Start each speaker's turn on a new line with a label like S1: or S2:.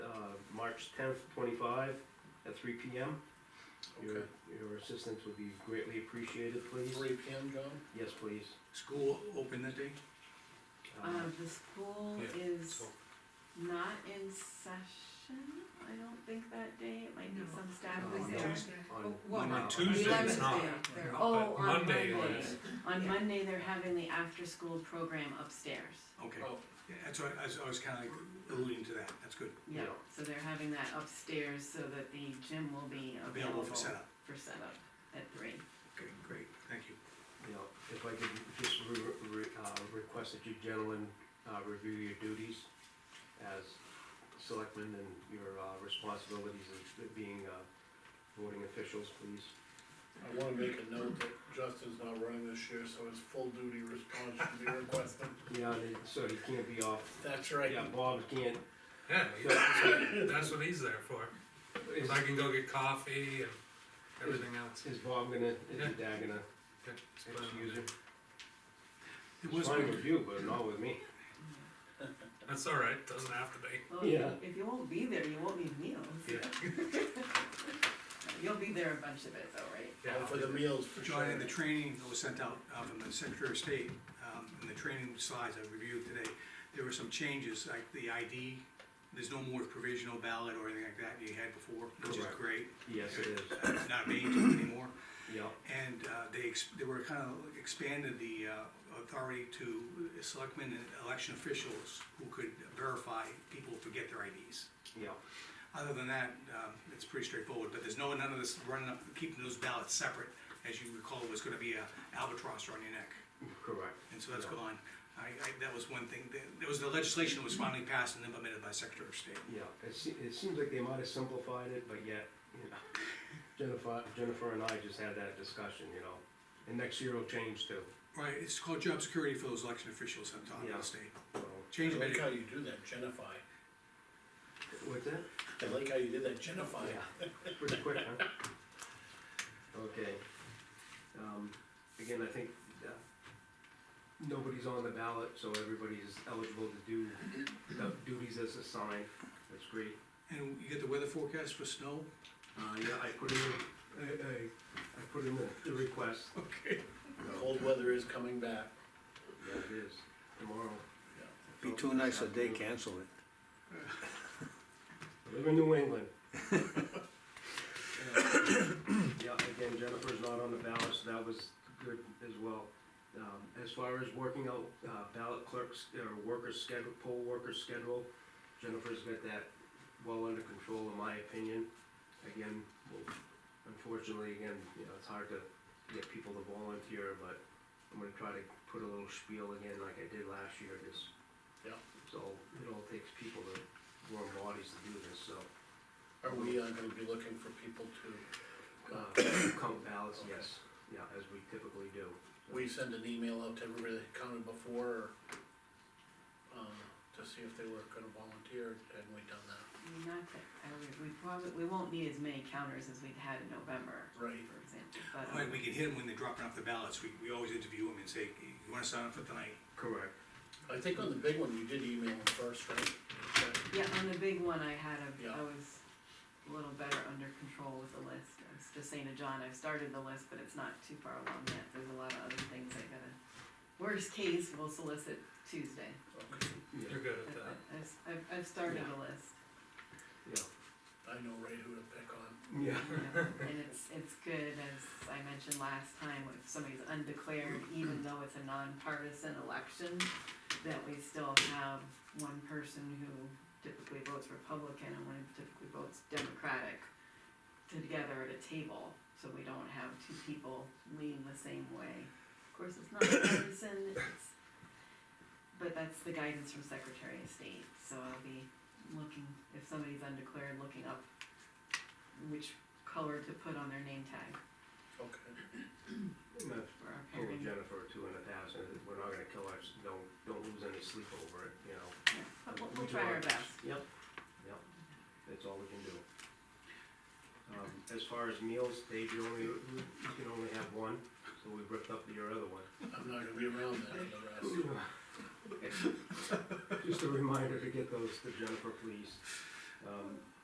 S1: uh, March tenth, twenty-five, at three P M. Your,
S2: Okay.
S1: your assistance would be greatly appreciated, please.
S2: Three P M, John?
S1: Yes, please.
S3: School open that day?
S1: Um,
S4: Um, the school
S3: Mm-hmm. Yeah,
S4: is
S3: so-
S4: not in session, I don't think that day, it might be
S5: No.
S4: some staff
S3: Oh,
S1: No,
S4: was
S1: no.
S4: there.
S1: on-
S5: Well,
S3: On
S2: uh,
S5: no,
S3: Tuesday,
S5: eleventh
S3: it's not.
S5: there, they're-
S3: But
S4: Oh, on
S3: Monday, it
S4: Monday.
S3: is.
S4: On
S5: Yeah.
S4: Monday, they're having the after-school program upstairs,
S3: Okay,
S2: Oh,
S3: Yeah, that's what, I was, I was kinda alluding to that, that's good,
S4: yeah,
S1: Yeah.
S4: so they're having that upstairs so that the gym will be
S3: available for setup,
S4: for setup at three.
S3: okay, great, thank you.
S1: You know, if I could just re- re- uh, request that you gentlemen, uh, review your duties as selectmen and your, uh, responsibilities as being, uh, voting officials, please.
S2: I wanna make a note that Justin's not running this year, so his full duty response should be requested.
S1: Yeah, and it- so you can't be off,
S2: That's right.
S1: yeah, Bob can't,
S6: Yeah,
S1: so,
S6: that's what he's there for,
S1: is,
S6: 'cause I can go get coffee and everything else.
S1: is Bob gonna, is Dad gonna
S6: Yeah, it's fine.
S1: excuse him?
S3: It
S1: It's
S3: was,
S1: fine with you, but not with me.
S6: That's all right, doesn't have to be.
S4: Well, if you-
S1: Yeah.
S4: If you won't be there, you won't need meals.
S6: Yeah.
S4: You'll be there a bunch of it though, right?
S2: And for the meals, for sure.
S3: John, in the training that was sent out uh, from the Secretary of State, um, in the training slides I reviewed today, there were some changes, like the ID, there's no more provisional ballot or anything like that you had before, which is
S1: Correct.
S3: great,
S1: Yes, it is,
S3: It's not mandatory anymore.
S1: yeah,
S3: And uh, they, ex- they were kind of expanded the uh, authority to selectmen and election officials who could verify people forget their IDs.
S1: yeah,
S3: Other than that, um, it's pretty straightforward, but there's no, none of this running up, keeping those ballots separate. As you recall, was gonna be a albatross around your neck,
S1: correct.
S3: and so that's
S1: Yeah.
S3: gone. I, I, that was one thing, There- there was the legislation that was finally passed and implemented by Secretary of State.
S1: Yeah, it se- it seems like they might have simplified it, but yet, you know, Jennifer, Jennifer and I just had that discussion, you know. And next year will change too,
S3: Right, it's called job security for those election officials on top of
S1: Yeah.
S3: the state.
S1: so.
S3: Change
S2: I
S3: it,
S2: like how you do that, Genify.
S1: What's that?
S2: I like how you did that, Genify.
S1: Yeah, pretty quick, huh? Okay. Um, Again, I think uh, nobody's on the ballot, so everybody's eligible to do the duties as assigned. That's great.
S3: and you get the weather forecast for snow?
S1: Uh, yeah, I put in, I, I, I put in the- the request.
S3: Okay.
S2: Cold weather is coming back.
S1: Yeah, it is, tomorrow.
S7: Be too nice a day, cancel it.
S1: I Live in New England. Yeah, again, Jennifer's not on the ballot, so that was good as well. Um, as far as working out, uh, ballot clerks, or workers schedule, poll workers schedule, Jennifer's got that well under control, in my opinion. Again, well, unfortunately, again, you know, it's hard to get people to volunteer, but I'm gonna try to put a little spiel again like I did last year, just.
S2: Yeah.
S1: So, it all takes people to, warm bodies to do this, so.
S2: Are we uh, gonna be looking for people to,
S1: Uh, count ballots, yes, yeah, as we typically do.
S2: we send an email out to everybody that counted before, or, um, to see if they were gonna volunteer, and we done that?
S4: Not that, I would- we probably, we won't need as many counters as we've had in November,
S2: Right.
S4: for example, but. um,
S3: Well, we can hit them when they're dropping off the ballots, we, we always interview them and say, you wanna sign up for tonight?
S1: Correct.
S2: I think on the big one, you did email them first, right?
S4: Yeah, on the big one, I had a,
S2: Yeah.
S4: I was a little better under control with the list. I was just saying to John, I've started the list, but it's not too far along yet. There's a lot of other things I gotta, worst case, we'll solicit Tuesday.
S2: Okay,
S1: Yeah,
S6: You're good at
S4: I've-
S6: that.
S4: I've, I've, I've started a list,
S1: yeah,
S2: I know right who to pick on.
S1: yeah,
S4: you know, and it's, it's good, as I mentioned last time, if somebody's undeclared, even though it's a nonpartisan election, that we still have one person who typically votes Republican and one who typically votes Democratic together at a table, so we don't have two people leaning the same way. Of course, it's not partisan, it's, but that's the guidance from Secretary of State, so I'll be looking, if somebody's undeclared, looking up which color to put on their name tag
S2: Okay.
S1: and I've
S4: for our
S1: told
S4: pairing.
S1: Jennifer too in the past, and we're not gonna kill our, don't, don't lose any sleep over it, you know.
S4: Yeah, But we'll, we'll try our best.
S1: Yep, yep, that's all we can do. Um, as far as meals, Dave, you only, you can only have one, so we ripped up your other one.
S2: I'm not gonna be around that for the rest.
S1: Just a reminder to get those to Jennifer, please. Um,